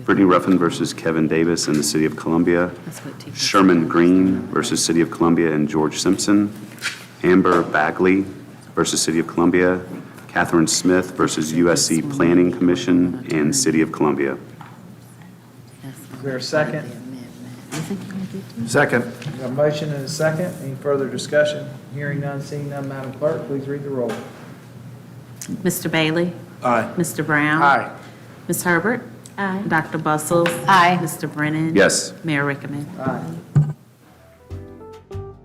Brittany Ruffin versus Kevin Davis in the City of Columbia. That's what T- Sherman Green versus City of Columbia and George Simpson. Amber Bagley versus City of Columbia. Catherine Smith versus USC Planning Commission and City of Columbia. that's Is not there a the second? amendment. You think you did too? Second. A motion and a second. Any further discussion? Hearing none, seeing none, Madam Clerk, please read the roll. Mr. Bailey? Aye. Mr. Brown? Aye. Ms. Herbert? Aye. Dr. Bustles? Aye. Mr. Brennan? Yes. Mayor Rickaman? Aye.